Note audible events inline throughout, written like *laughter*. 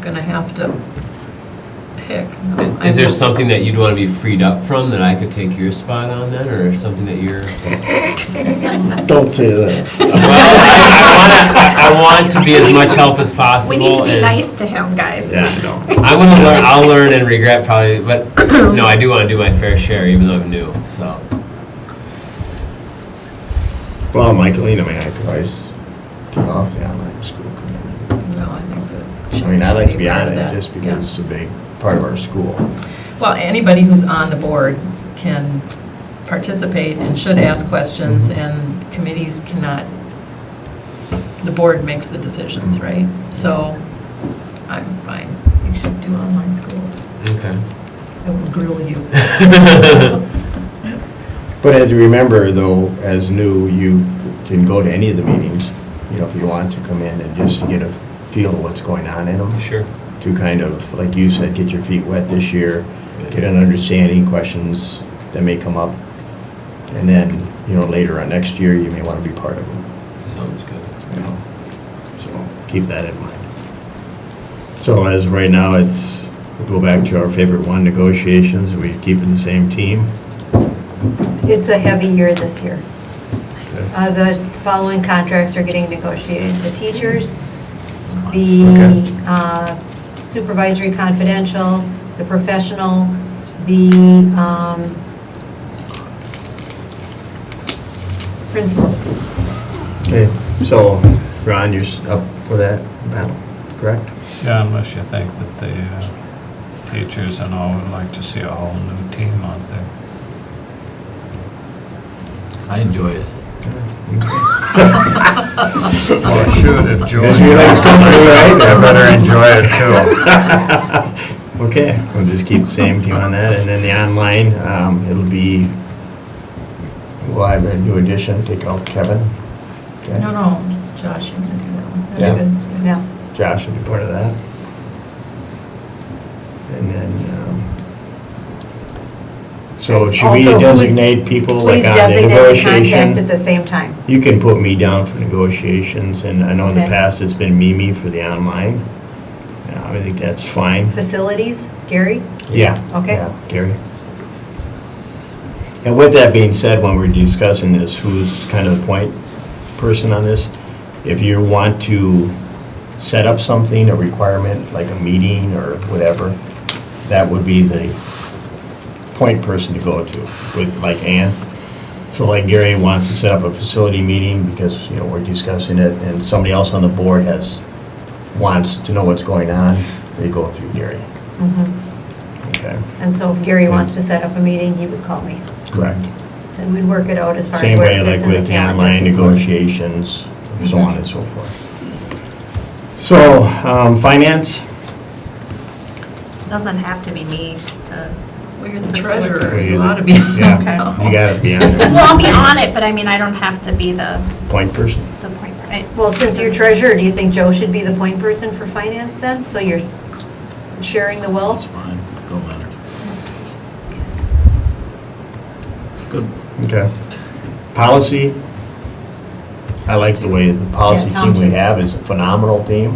gonna have to pick. I Is there will- something that you'd want to be freed up from that I could take your spot on then, or something that *laughs* you're? Don't say that. Well, I- I, wanna- I, I want to be as much help as We possible. need to be and nice to him, guys. I'm gonna learn, I'll learn and regret probably, *clears throat* but no, I do want to do my fair share, even though I'm new, so. Well, Michaelina, I mean, I could always get off the online school committee. No, I think that. she I mean, I like to should be on part of it that. just Yeah. because it's a big part of our school. Well, anybody who's on the board can participate and should ask Mm-hmm. questions, and committees cannot, the board makes the decisions, Mm-hmm. right? So I'm fine. You should do online schools. Okay. I will grill *laughs* you. But as you remember, though, as new, you can go to any of the meetings, you know, if you want to come in and just get a feel of what's going on in them. Sure. To kind of, like you said, get your feet wet this year, get an understanding, questions that may come up. And then, you know, later on next year, you may want to be part of them. Sounds good. you know, so keep that in mind. So as of right now, it's, we go back to our favorite one, negotiations, we keep it the same team. It's a heavy year this year. Uh, The following contracts are getting negotiated. The teachers, the Okay. uh, supervisory confidential, the professional, the um, principals. Okay, so Ron, you're s- up for that battle, correct? Yeah, unless you think that the uh, teachers and all would like to see a whole new team out there. I enjoy it. Well, should if Julie Because you like wants to something, do it, right? I better enjoy it too. *laughs* Okay, we'll just keep the same team on that, and then the online, um, it'll be, well, I have a new addition, take out Kevin. Okay. No, no, Josh, you can do that one. That's Yeah. good. Yeah. Josh will be part of that. And then, um, so should we Also, who's- designate people like Please on the designate the contact at negotiation? Mm-hmm. the same time. You can put me down for negotiations, and I know in the Okay. past it's been Mimi for the online. Yeah, I think that's fine. Facilities, Gary? Yeah. Okay. yeah, Gary. And with that being said, when we're discussing this, who's kind of the point person on this? If you want to set up something, a requirement, like a meeting or whatever, that would be the point person to go to, with, like Ann. So like Gary wants to set up a facility meeting because, you know, we're discussing it, and somebody else on the board has, wants to know what's going on, they go through Gary. Mm-hmm. Okay, And so if Gary wants to set up a meeting, he would call me. correct. And we'd work it out as far as Same where way it like fits in the with the calendar. online negotiations, so on and so forth. So, um, finance, Doesn't have to be me to, Well, you're the treasurer, you Well, ought to be. yeah, you gotta be on the well, I'll be on it, but I mean, I don't have to be the, point person. the point. per- I- Well, since you're treasurer, do you think Joe should be the point person for finance then? So you're s- sharing the wealth? Okay. Policy, I like the way the policy Yeah, Tom team we too. have is a phenomenal team.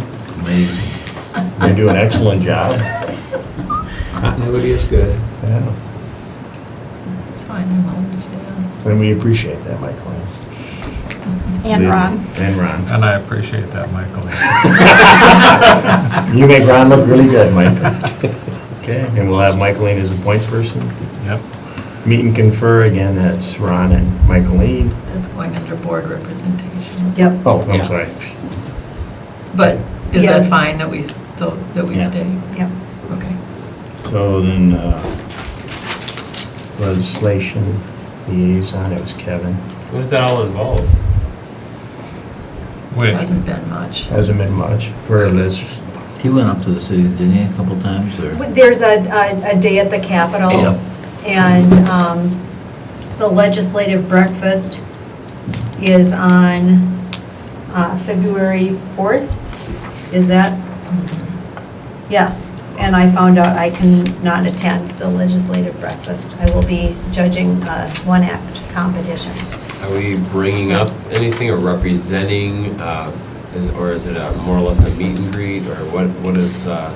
They do an excellent job. *laughs* Continuity is good. Yeah. It's fine, I'm willing to stay on. And we appreciate that, Michael. And Ron. And Ron. And I appreciate that, Michael. *laughs* You make Ron look really good, Mike. *laughs* Okay, and we'll have Michaeline as a point person. Yep. Meet and confer, again, that's Ron and Michaeline. That's going under board representation. Yep. Oh, I'm Yeah. sorry. But is that Yeah. fine that we, still- that we Yeah. stay? Yep. Okay. So then, uh, legislation liaison, it was Kevin. What does that all involve? Wait, Hasn't been much. Hasn't been much for Liz. He went up to the city, didn't he, a couple times, or? But There's a, a, a day at the Capitol. Yep. And um, the legislative breakfast is on uh, February 4th. Is that? Yes. And I found out I cannot attend the legislative breakfast. I will be judging a one-act competition. Are we bringing up anything or representing, uh, is, or is it a more or less a meet and greet, or what, what is, uh?